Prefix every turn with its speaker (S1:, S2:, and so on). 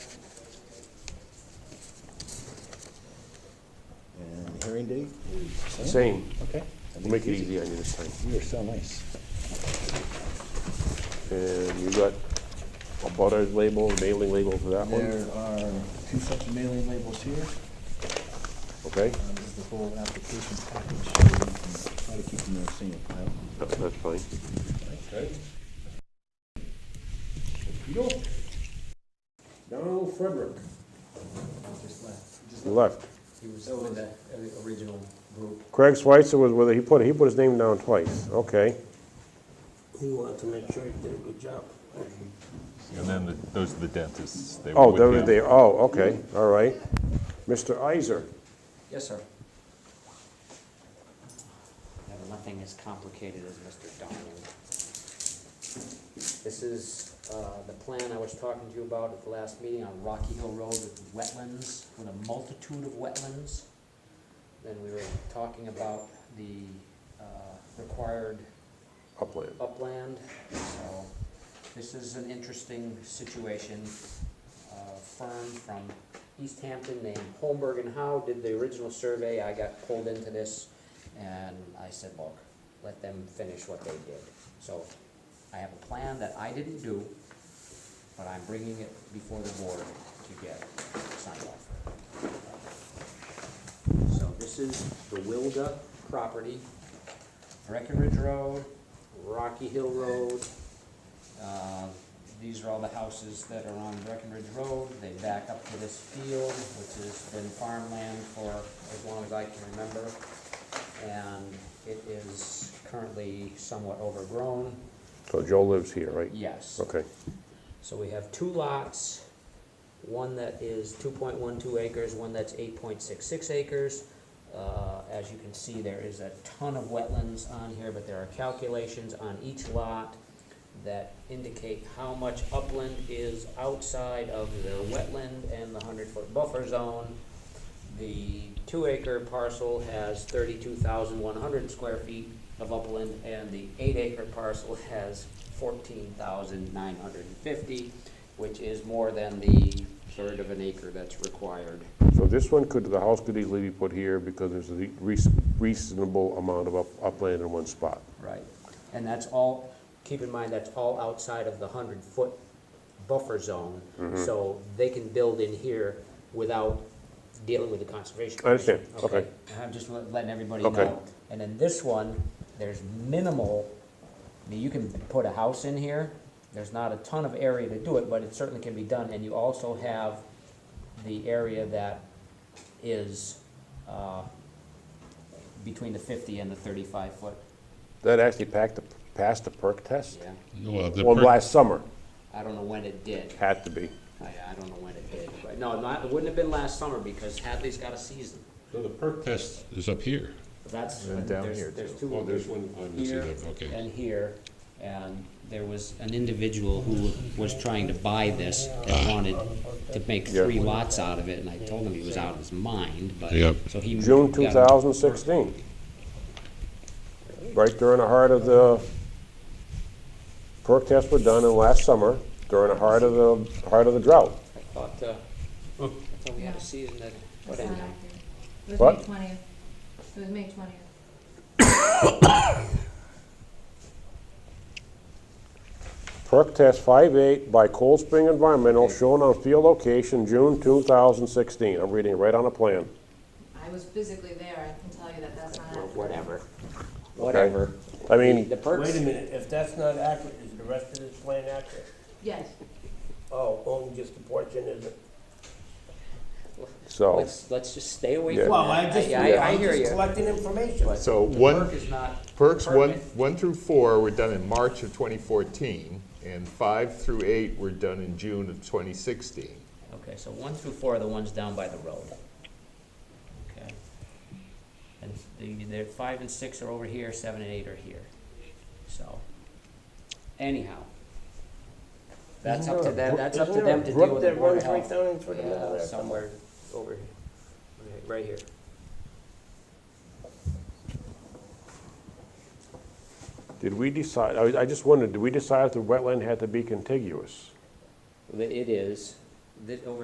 S1: hearing date is the
S2: Same.
S1: Okay.
S2: We'll make it easy on you this time.
S1: You are so nice.
S2: And you got a butter label, mailing label for that one,
S1: There are two sets of mailing labels here.
S2: okay?
S1: Um, This is the whole application package. so we can Try to keep them in a single file.
S2: That- That's fine.
S1: Okay.
S3: Donald Frederick.
S4: just left.
S2: You left.
S4: He was with Oh, that uh, original group.
S2: Craig Switzer was with it, he put, he put his name down twice, okay.
S5: He wanted to make sure he did a good job.
S6: And then the- those are the dentists. They were
S2: Oh,
S6: with
S2: there was
S6: him.
S2: the, oh, okay, all right. Mr. Iser,
S4: Yes, sir.
S7: No, Nothing as complicated as Mr. Donald. This is uh, the plan I was talking to you about at the last meeting on Rocky Hill Road with wetlands, with a multitude of wetlands. Then we were talking about the uh, required
S2: upland.
S7: upland, so this is an interesting situation. A firm from East Hampton named Holmberg and Howe did the original survey, I got pulled into this, and I said, look, let them finish what they did. So, I have a plan that I didn't do, but I'm bringing it before the board to get signed off. So this is the Wilga property, Breckenridge Road, Rocky Hill Road. Uh, These are all the houses that are on Breckenridge Road. They back up to this field, which has been farmland for as long as I can remember. And it is currently somewhat overgrown,
S2: So Joe lives here, right?
S7: yes.
S2: Okay,
S7: So we have two lots, one that is two point one two acres, one that's eight point six six acres. Uh, as you can see, there is a ton of wetlands on here, but there are calculations on each lot that indicate how much upland is outside of the wetland and the hundred foot buffer zone. The two acre parcel has thirty-two thousand one hundred square feet of upland, and the eight acre parcel has fourteen thousand nine hundred and fifty, which is more than the third of an acre that's required.
S2: so this one could, the house could easily be put here because there's a reas- reasonable amount of up- upland in one spot.
S7: Right. And that's all, keep in mind, that's all outside of the hundred foot buffer zone,
S2: Mm-hmm.
S7: so they can build in here without dealing with the conservation.
S2: I understand.
S7: Commission,
S2: Okay.
S7: And I'm just le- letting everybody
S2: Okay.
S7: know. And then this one, there's minimal, I mean, you can put a house in here, there's not a ton of area to do it, but it certainly can be done, and you also have the area that is, uh, between the fifty and the thirty-five foot,
S2: That actually packed the, passed the perk test?
S7: yeah.
S6: Well, the
S2: Well,
S6: per-
S2: last summer,
S7: I don't know when it did.
S2: had to be.
S7: I, I don't know when it did. But no, not, it wouldn't have been last summer because Hadley's got a season.
S6: so the perk test is up here.
S7: That's,
S6: And down
S7: there's,
S6: here,
S7: there's
S6: too.
S7: two.
S6: Oh, there's one on this
S7: here
S6: end, okay.
S7: And here, and there was an individual who was trying to buy this and wanted to make
S2: Yeah.
S7: three lots out of it, and I told him he was out of his mind, but,
S6: Yep.
S7: so he.
S2: June
S7: got-
S2: 2016. Right during the heart of the, perk tests were done in last summer, during the heart of the, heart of the drought.
S7: I thought, uh, I thought we had a season that, but
S8: That's not
S7: anyhow.
S8: accurate. It was
S2: What?
S8: May twentieth. It was May twentieth.
S2: Perk test 5.8 by Cold Spring Environmental, shown on field location, June 2016. I'm reading it right on the plan.
S8: I was physically there. I can tell you that that's not accurate.
S7: Whatever.
S2: Whatever. I mean,
S7: The perks.
S5: Wait a minute, if that's not accurate, is the rest of this plan accurate?
S8: Yes,
S5: Oh, only just a portion is it?
S2: so,
S7: Let's, let's just stay away
S2: Yeah.
S7: from that.
S5: Well, Oh, I just,
S7: I, I
S5: I'm
S7: hear
S5: just
S7: you.
S5: collecting information.
S7: But
S9: So
S7: the
S9: one-
S7: Perk is not.
S9: Perks one,
S7: permanent.
S9: one through four were done in March of 2014, and five through eight were done in June of 2016.
S7: Okay, so one through four are the ones down by the road. Okay. And the, the, five and six are over here, seven and eight are here. So, anyhow. That's up to them, that's up to them to deal with the Board of
S5: Isn't
S7: Health.
S5: there a brook that runs right down into the middle
S7: Yeah,
S5: there
S7: somewhere over here, right, right here.
S2: did we decide, I I just wondered, did we decide if the wetland had to be contiguous?
S7: It is, over